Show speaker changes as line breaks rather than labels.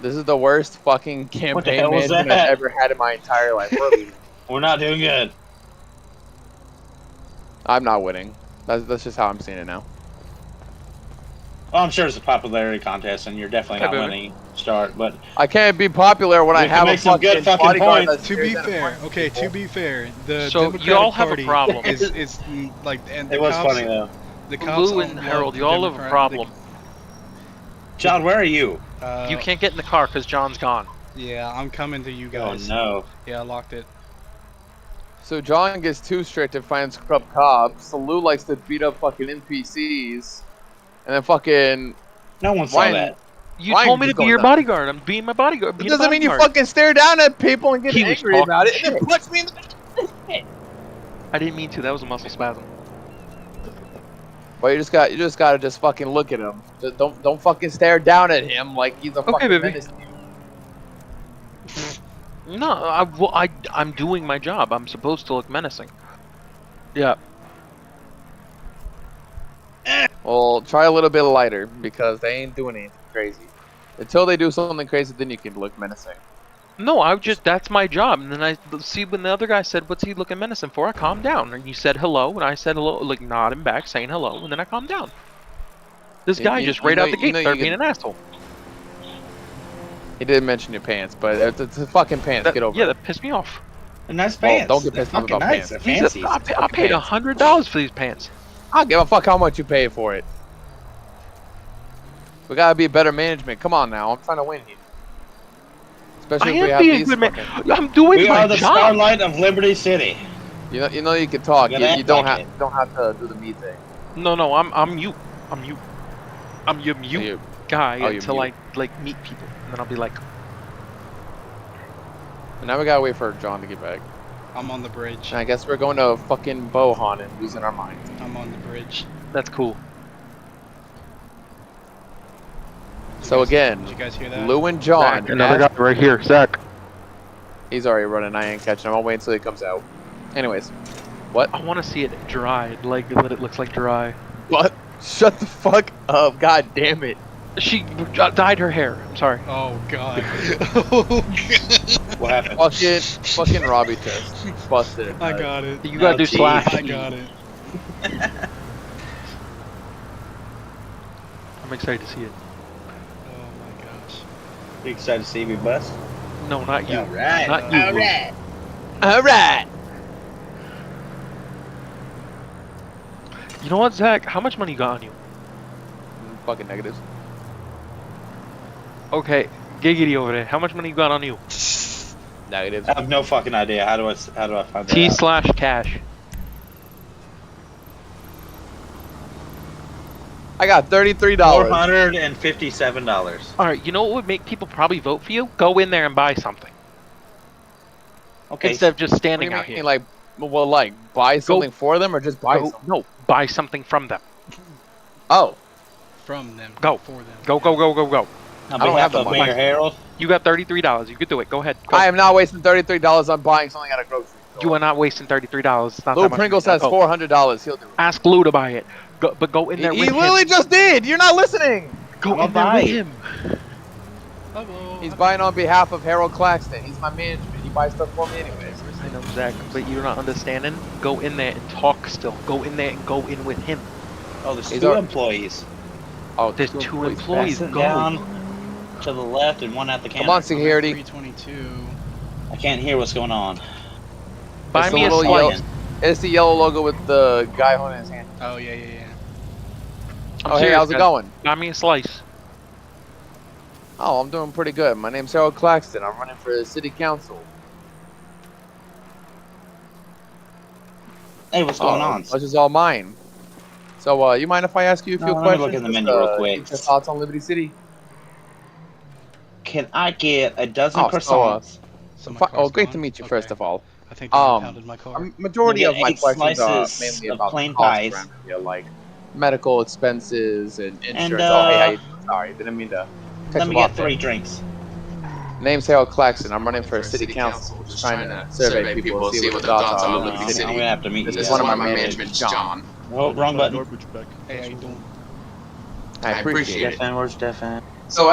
This is the worst fucking
What the
campaign
hell was
management
that?
I've ever had in my entire life. We're leaving.
We're not doing good.
I'm not winning. That's, that's just how I'm seeing it now.
Well, I'm sure it's a popularity contest, and you're definitely
Hey,
not winning start. But
I can't be popular when I
You can
have a
make some
fucking,
good fucking
bodyguard
points.
that's
To
bigger
be
than a
fair,
fucking
okay. To
people.
be fair, the
So, you
Democratic
all have a
Party
problem.
Is, is mm, like and
it
the
was
cops,
funny though.
The cops
Lou and
all
Harold,
love
you all have a
Democrat-
problem.
John, where are you?
the- uh,
you can't get in the car because John's gone.
Yeah, I'm coming to you guys.
Oh no.
Yeah, I locked it.
So John gets too strict and finds corrupt cops. So Lou likes to beat up fucking NPCs, and then fucking.
No one saw
Why-
that.
You
Why
told
are
me
you
to be
going
your
down?
bodyguard. I'm being my bodyguard.
It
being a
doesn't mean you
bodyguard.
fucking stare down at people and get
He was
angry about it,
talking
and then
shit.
punch me in the.
I didn't mean to. That was a muscle spasm.
But you just got you just gotta just fucking look at him. Just don't don't fucking stare down at him like he's a
Okay,
fucking
baby.
menace to you.
No, I, well, I, I'm doing my job. I'm supposed to look menacing. Yeah.
Well, try a little bit lighter because they ain't doing anything crazy. Until they do something crazy, then you can look menacing.
No, I just, that's my job. And then I see when the other guy said, What's he looking menacing for? I calmed down. And you said hello. And I said hello, like nodding back, saying hello. And then I calmed down. This
You-
guy
you-
just
you
right
know-
out the
you
gate
know you
started being
can-
an asshole.
He didn't mention your pants, but it's, it's his fucking pants.
That-
Get over
yeah,
it.
that pissed me off.
They're nice
Well,
pants.
don't get
They're
pissed off
fucking
about
nice.
pants.
They're
Jesus,
fancy.
I, pa- I paid
pants.
$100 for these pants.
I don't give a fuck how much you pay for it. We gotta be better management. Come on now, I'm trying to win here. Especially
I
if we
am
have
being a
these.
good man.
fucking-
I'm doing
We
my
are the
job.
starlight of Liberty City.
You know, you know, you can talk.
You
You,
gotta
you don't
act like
have, don't have to do the me thing.
No, no, I'm I'm you. I'm you. I'm your mute
You-
guy
Oh, you're
until
mute.
I like meet people, and then I'll be like,
And now we gotta wait for John to get back.
I'm on the bridge.
And I guess we're going to fucking Bohan and losing our mind.
I'm on the bridge.
"That's cool."
So again,
Did you guys hear that?
Lou and John.
guy right here, Zach.
He's already running. I ain't catching him. I'll wait until he comes out. Anyways, what?
I want to see it dried, like that. It looks like dry.
What? Shut the fuck up! God damn it!
She uh, dyed her hair. I'm sorry.
Oh god. oh god.
What happened?
Fucking, fucking Robbie test busted. it,
I
guys.
got it.
You
Oh,
gotta do
geez.
slash.
I got it.
I'm excited to see it.
Oh my gosh.
You excited to see me bust?
No, not you.
All right.
Not you.
All
Lou.
right.
All right.
You know what, Zach? How much money you got on you?
Fucking negatives.
Okay, giggity over there. How much money you got on you?
Negatives.
I have no fucking idea. How do I? s- How do I find that?
T
out?
slash cash.
I got thirty-three
Four
dollars.
hundred and fifty-seven dollars.
All right. You know what would make people probably vote for you? Go in there and buy something
Okay.
instead of just
What do
standing
you
out
mean,
here.
Like, well, like buy something for them or just buy
Go-
something?
no, buy something from them.
Oh,
From them.
Go.
For them.
Go, go, go, go, go.
on
I don't
behalf
have the
of
money.
Mayor Harold.
You got thirty-three dollars. You could do it. Go ahead. Go.
I am not wasting thirty-three dollars on buying something at a grocery store.
you are not wasting thirty-three dollars. It's not
Lou
that much
Pringles
money.
has
Go.
four hundred dollars. He'll do it.
Ask Lou to buy it. Go, but go in
He,
there with
he literally
him.
just did. You're not listening.
Go
I'll
in there
buy
with
it.
him.
Hello.
He's buying on behalf of Harold Claxton. He's my management. He buys stuff for me anyways.
I know, Zach, but you're not understanding. Go in there and talk. Still, go in there and go in with him.
Oh, there's
He's
two
our-
employees.
Oh,
There's two employees.
Sit
Go.
down to the left and one at the camera.
Come on, security.
322.
I can't hear what's going on.
Buy
It's
me
the
a
little
slice.
yellow. It's the yellow logo with the guy holding his hand.
Oh yeah, yeah, yeah.
I'm
oh, hey,
serious,
how's it
guys.
going?
Buy me a slice.
Oh, I'm doing pretty good. My name's Harold Claxton. I'm running for the city council.
Hey, what's going
oh,
on?
This is all mine. So, uh, you mind if I ask you a
No,
few
let me
questions?
look in the
Just,
menu real
uh,
quick.
get Your thoughts on Liberty City?
Can I get a dozen
Oh, so, uh,
croissants?
So my
Fi-
car's
oh, great to
gone?
meet you,
Okay.
first of all.
I think they
Um,
impounded my car.
A majority
Maybe
of my
eight
questions are
slices
mainly
of
about
plain
the cost
pies.
around here, like medical expenses and insurance. oh,
uh,
hey, how you doing? sorry, didn't mean to. cut
Let
you
me
off
get
there.
three drinks.
Name's Harold Claxton. I'm running for city council. Just trying to survey people, and see what their thoughts are
Uh,
on
I'm,
Liberty
I'm
City.
gonna have to meet
This
you.
is one
guys.
of my management, John.
Oh, wrong button.
hey, I don't.
I appreciate it.
Stefan, where's Stefan?